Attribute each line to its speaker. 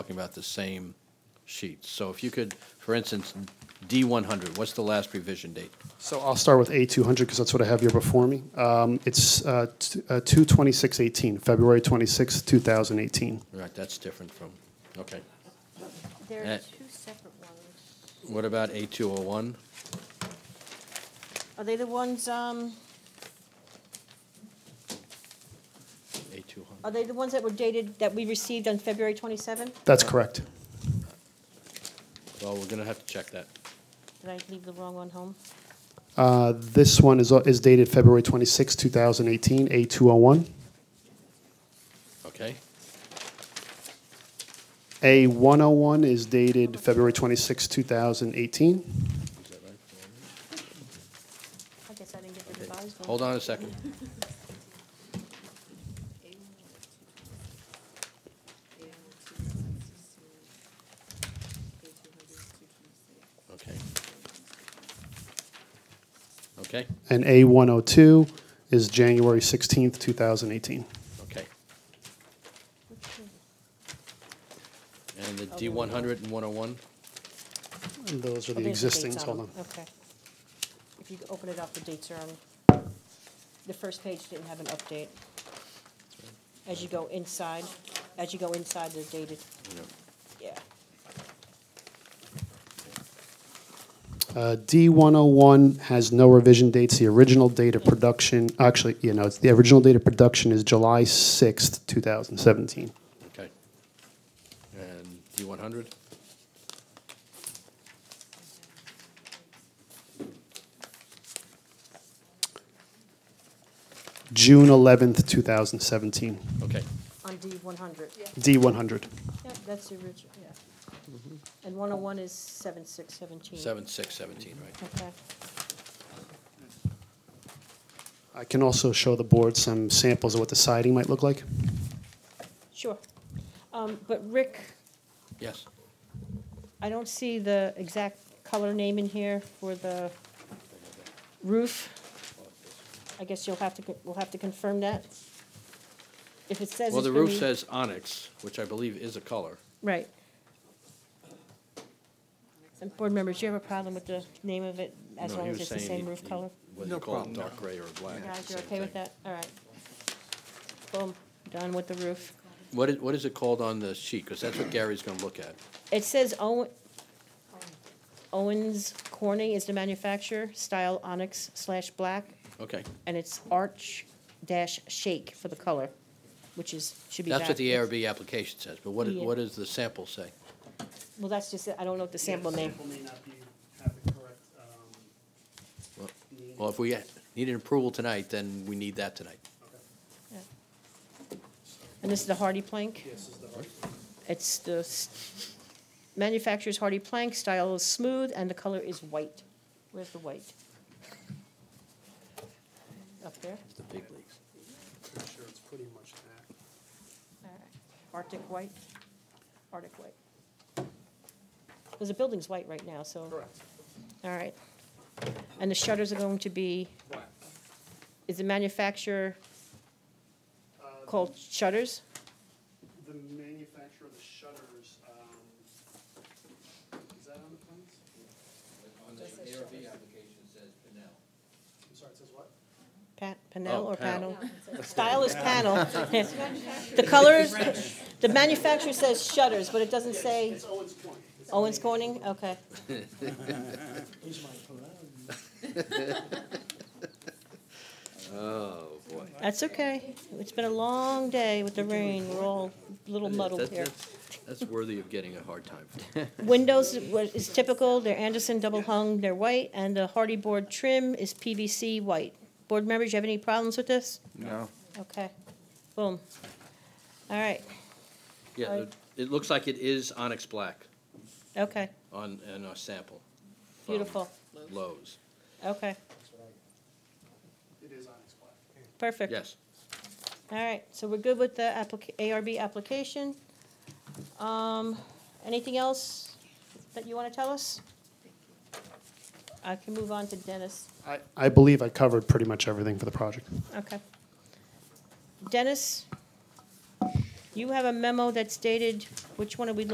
Speaker 1: talking about the same sheets. So if you could, for instance, D100, what's the last revision date?
Speaker 2: So I'll start with A200 because that's what I have here before me. Um, It's uh, t- uh, 2/26/18, February 26, 2018.
Speaker 1: Right, that's different from, okay.
Speaker 3: There
Speaker 1: Eh.
Speaker 3: are two separate ones.
Speaker 1: What about A201?
Speaker 3: Are they the ones, um,
Speaker 1: A200,
Speaker 3: are they the ones that were dated, that we received on February 27?
Speaker 2: That's correct.
Speaker 1: well, we're going to have to check that.
Speaker 3: Did I leave the wrong one home?
Speaker 2: Uh, This one is is dated February 26, 2018, A201.
Speaker 1: Okay,
Speaker 2: A101 is dated February 26,
Speaker 1: is
Speaker 2: 2018.
Speaker 1: that right?
Speaker 3: I guess I didn't get the revised one.
Speaker 1: Hold on a second. Okay. Okay,
Speaker 2: And A102 is January 16, 2018.
Speaker 1: okay.
Speaker 3: Which one?
Speaker 1: And the
Speaker 3: Oh,
Speaker 1: D100 and 101?
Speaker 2: And those are
Speaker 3: Oh,
Speaker 2: the
Speaker 3: there's dates
Speaker 2: existings, hold on.
Speaker 3: them. Okay. If you open it up, the dates are on, the first page didn't have an update. As you go inside, as you go inside, they're dated,
Speaker 1: No.
Speaker 3: yeah.
Speaker 2: Uh, D101 has no revision dates. The original date of production, actually, you know, it's, the original date of production is July 6th, 2017.
Speaker 1: Okay. And D100?
Speaker 2: June 11th, 2017.
Speaker 1: Okay,
Speaker 3: On D one hundred. Yeah.
Speaker 2: D100.
Speaker 3: Yep, that's the original, yeah.
Speaker 1: Mm-hmm.
Speaker 3: And one oh one is seven six seventeen.
Speaker 1: 7617, right?
Speaker 3: Okay.
Speaker 2: I can also show the board some samples of what the siding might look like.
Speaker 3: Sure. Um, But Rick,
Speaker 1: Yes.
Speaker 3: I don't see the exact color name in here for the roof. I guess you'll have to, co- we'll have to confirm that. If it says
Speaker 1: Well,
Speaker 3: it's
Speaker 1: the
Speaker 3: gonna
Speaker 1: roof
Speaker 3: be-
Speaker 1: says onyx, which I believe is a color.
Speaker 3: Right. And board members, do you have a problem with the name of it as
Speaker 1: No,
Speaker 3: long
Speaker 1: he
Speaker 3: as
Speaker 1: was
Speaker 3: it's the
Speaker 1: saying
Speaker 3: same
Speaker 1: he-
Speaker 3: roof
Speaker 1: he-
Speaker 3: color?
Speaker 1: Whether
Speaker 4: No
Speaker 1: you call it
Speaker 4: problem.
Speaker 1: dark gray or black.
Speaker 3: You
Speaker 1: it's
Speaker 3: Guys,
Speaker 1: the
Speaker 3: you're
Speaker 1: same
Speaker 3: okay with
Speaker 1: thing.
Speaker 3: that? All right. Boom, done with the roof.
Speaker 1: What is, what is it called on the sheet? Because that's what Gary's going to look at.
Speaker 3: It says Owen, Owens Corning is the manufacturer, style onyx slash black,
Speaker 1: Okay,
Speaker 3: and it's arch dash shake for the color, which is, should be.
Speaker 1: that's what
Speaker 3: back-
Speaker 1: the ARB application says, but what,
Speaker 3: Yeah.
Speaker 1: what does the sample say?
Speaker 3: Well, that's just, it. I don't know what the sample name.
Speaker 2: may not be, have the correct, uh,
Speaker 1: Well- Well, if we need an approval tonight, then we need that tonight.
Speaker 3: And this is the hardy plank? It's the s- manufacturer's hardy plank, style is smooth, and the color is white. Where's the white? Up there?
Speaker 1: It's the big leagues.
Speaker 2: sure it's pretty much that.
Speaker 3: All right. Arctic white? Arctic white. Because the building's white right now, so.
Speaker 2: Correct.
Speaker 3: All right. And the shutters are going to be, is the manufacturer called shutters?
Speaker 2: The manufacturer of the shutters, um, is that on the plans?
Speaker 1: On the ARB application says Pinnell.
Speaker 2: I'm sorry, it says what?
Speaker 3: Pa- Panel
Speaker 1: Oh,
Speaker 3: or
Speaker 1: panel.
Speaker 3: panel? Style is panel. The colors, the manufacturer says shutters, but it doesn't say
Speaker 2: Owens Point.
Speaker 3: Owens Corning, okay.
Speaker 1: Oh, boy.
Speaker 3: That's okay. It's been a long day with the rain. We're all a little muddled
Speaker 1: That-
Speaker 3: here.
Speaker 1: that's- That's worthy of getting a hard time.
Speaker 3: Windows wa- is typical, they're Anderson double hung, they're white, and the hardy board trim is PVC white. Board members, you have any problems with this?
Speaker 4: No.
Speaker 3: Okay, boom. All right,
Speaker 1: Yeah, it- it looks like it is onyx black
Speaker 3: okay,
Speaker 1: on, in our sample. from
Speaker 3: beautiful,
Speaker 1: Lowe's,
Speaker 3: okay,
Speaker 2: It is on its plan.
Speaker 3: perfect.
Speaker 1: yes.
Speaker 3: All right, so we're good with the applica- ARB application. Um, anything else that you want to tell us? I can move on to Dennis.
Speaker 2: I, I believe I covered pretty much everything for the project.
Speaker 3: Okay. Dennis, you have a memo that's dated, which one are we looking